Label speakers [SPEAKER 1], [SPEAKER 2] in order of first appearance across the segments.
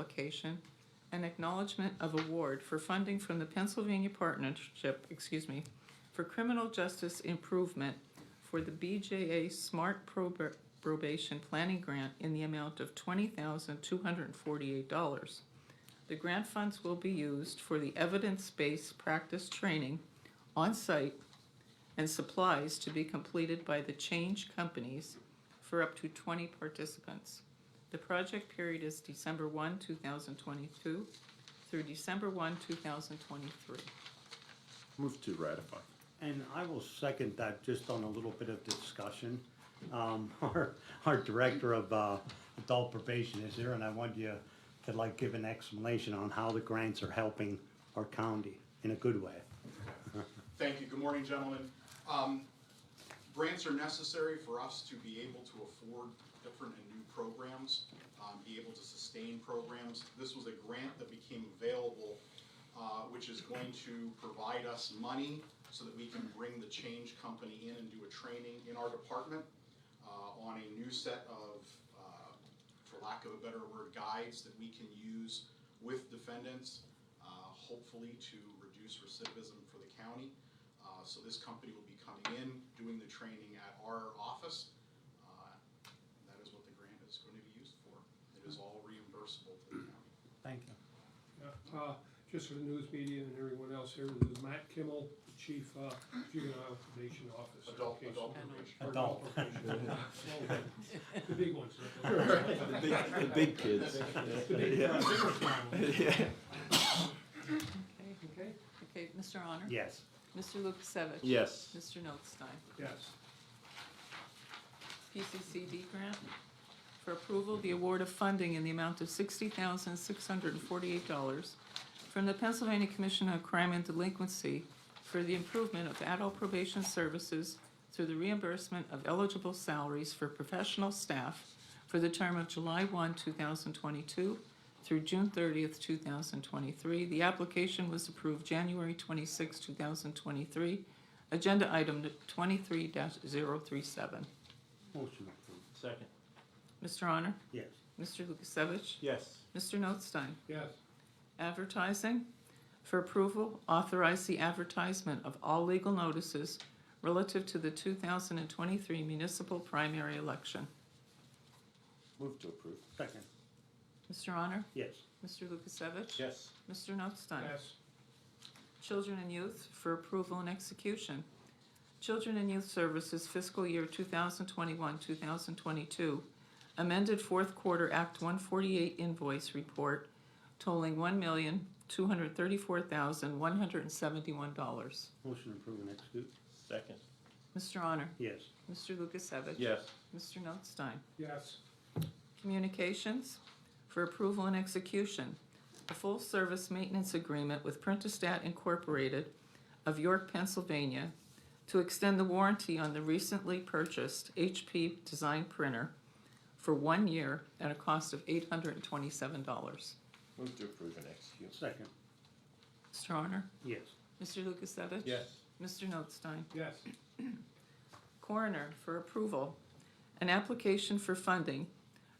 [SPEAKER 1] application, an acknowledgement of award for funding from the Pennsylvania Partnership, excuse me, for criminal justice improvement for the BJA Smart Prob- Probation Planning Grant in the amount of twenty thousand two hundred and forty-eight dollars. The grant funds will be used for the evidence-based practice training on-site and supplies to be completed by the change companies for up to twenty participants. The project period is December one, two thousand twenty-two through December one, two thousand twenty-three.
[SPEAKER 2] Move to ratify.
[SPEAKER 3] And I will second that, just on a little bit of discussion. Um, our, our director of, uh, adult probation is here, and I want you to like give an explanation on how the grants are helping our county in a good way.
[SPEAKER 4] Thank you. Good morning, gentlemen. Um, grants are necessary for us to be able to afford different and new programs, um, be able to sustain programs. This was a grant that became available, uh, which is going to provide us money so that we can bring the change company in and do a training in our department, uh, on a new set of, uh, for lack of a better word, guides that we can use with defendants, uh, hopefully to reduce recidivism for the county. Uh, so this company will be coming in, doing the training at our office. Uh, That is what the grant is going to be used for. It is all reimbursable to the county.
[SPEAKER 3] Thank you.
[SPEAKER 5] Uh, just for the news media and everyone else here, this is Matt Kimmel, Chief, uh, Juvenile Probation Officer.
[SPEAKER 4] Adult,
[SPEAKER 5] Okay,
[SPEAKER 4] adult
[SPEAKER 5] so-
[SPEAKER 4] probation.
[SPEAKER 5] or
[SPEAKER 3] Adult.
[SPEAKER 5] probation. The big ones.
[SPEAKER 2] The big, the big kids.
[SPEAKER 5] The big ones.
[SPEAKER 2] Yeah.
[SPEAKER 1] Okay,
[SPEAKER 5] Okay,
[SPEAKER 1] okay, Mr. Honor?
[SPEAKER 3] Yes,
[SPEAKER 1] Mr. Lukasevich?
[SPEAKER 2] Yes.
[SPEAKER 1] Mr. Notstein?
[SPEAKER 5] yes.
[SPEAKER 1] PCCD grant for approval, the award of funding in the amount of sixty thousand, six hundred and forty-eight dollars from the Pennsylvania Commission on Crime and Delinquency for the improvement of adult probation services through the reimbursement of eligible salaries for professional staff for the term of July one, two thousand twenty-two through June thirtieth, two thousand twenty-three. The application was approved January twenty-six, two thousand twenty-three. Agenda item twenty-three 37
[SPEAKER 3] motion approved.
[SPEAKER 2] Second.
[SPEAKER 1] Mr. Honor?
[SPEAKER 3] Yes,
[SPEAKER 1] Mr. Lukasevich?
[SPEAKER 2] Yes.
[SPEAKER 1] Mr. Notstein?
[SPEAKER 5] Yes,
[SPEAKER 1] Advertising. For approval, authorize the advertisement of all legal notices relative to the two thousand and twenty-three municipal primary election.
[SPEAKER 2] Move to approve.
[SPEAKER 3] second,
[SPEAKER 1] Mr. Honor?
[SPEAKER 3] yes,
[SPEAKER 1] Mr. Lukasevich?
[SPEAKER 2] Yes.
[SPEAKER 1] Mr. Notstein?
[SPEAKER 5] yes,
[SPEAKER 1] Children and Youth for approval and execution. Children and Youth Services fiscal year 2021-2022 amended fourth quarter Act 148 invoice report totaling $1,234,171.
[SPEAKER 3] motion approved and execute,
[SPEAKER 2] Second.
[SPEAKER 1] Mr. Honor?
[SPEAKER 3] yes,
[SPEAKER 1] Mr. Lukasevich?
[SPEAKER 2] Yes.
[SPEAKER 1] Mr. Notstein?
[SPEAKER 5] yes,
[SPEAKER 1] Communications for approval and execution. A full-service maintenance agreement with Printastat Incorporated of York, Pennsylvania to extend the warranty on the recently purchased HP Design Printer for one year at a cost of eight hundred and twenty-seven dollars.
[SPEAKER 2] Move to approve and execute.
[SPEAKER 3] second,
[SPEAKER 1] Mr. Honor?
[SPEAKER 3] yes,
[SPEAKER 1] Mr. Lukasevich?
[SPEAKER 2] Yes.
[SPEAKER 1] Mr. Notstein?
[SPEAKER 5] yes,
[SPEAKER 1] Coroner for approval, an application for funding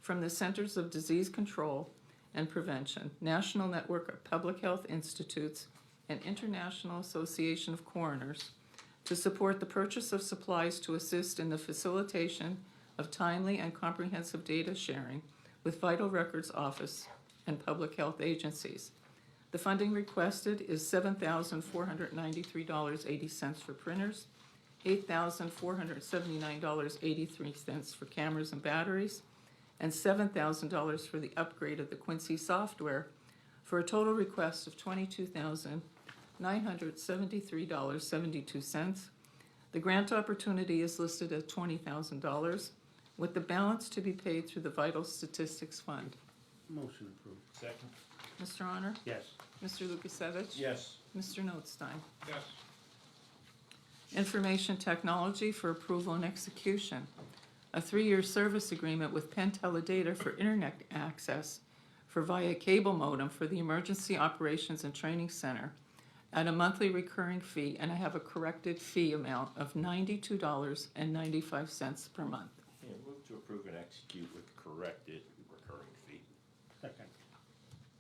[SPEAKER 1] from the Centers of Disease Control and Prevention, National Network of Public Health Institutes, and International Association of Coroners to support the purchase of supplies to assist in the facilitation of timely and comprehensive data sharing with Vital Records Office and public health agencies. The funding requested is seven thousand four hundred ninety-three dollars eighty cents for printers, eight thousand four hundred seventy-nine dollars eighty-three cents for cameras and batteries, and seven thousand dollars for the upgrade of the Quincy software, for a total request of twenty-two thousand nine hundred seventy-three dollars seventy-two cents. The grant opportunity is listed at twenty thousand dollars, with the balance to be paid through the Vital Statistics Fund.
[SPEAKER 3] motion approved,
[SPEAKER 2] Second.
[SPEAKER 1] Mr. Honor?
[SPEAKER 3] yes,
[SPEAKER 1] Mr. Lukasevich?
[SPEAKER 2] Yes.
[SPEAKER 1] Mr. Notstein?
[SPEAKER 5] yes,
[SPEAKER 1] Information Technology for approval and execution. A three-year service agreement with Pentella Data for internet access for via cable modem for the Emergency Operations and Training Center at a monthly recurring fee, and I have a corrected fee amount of ninety-two dollars and ninety-five cents per month.
[SPEAKER 2] Yeah, move to approve and execute with corrected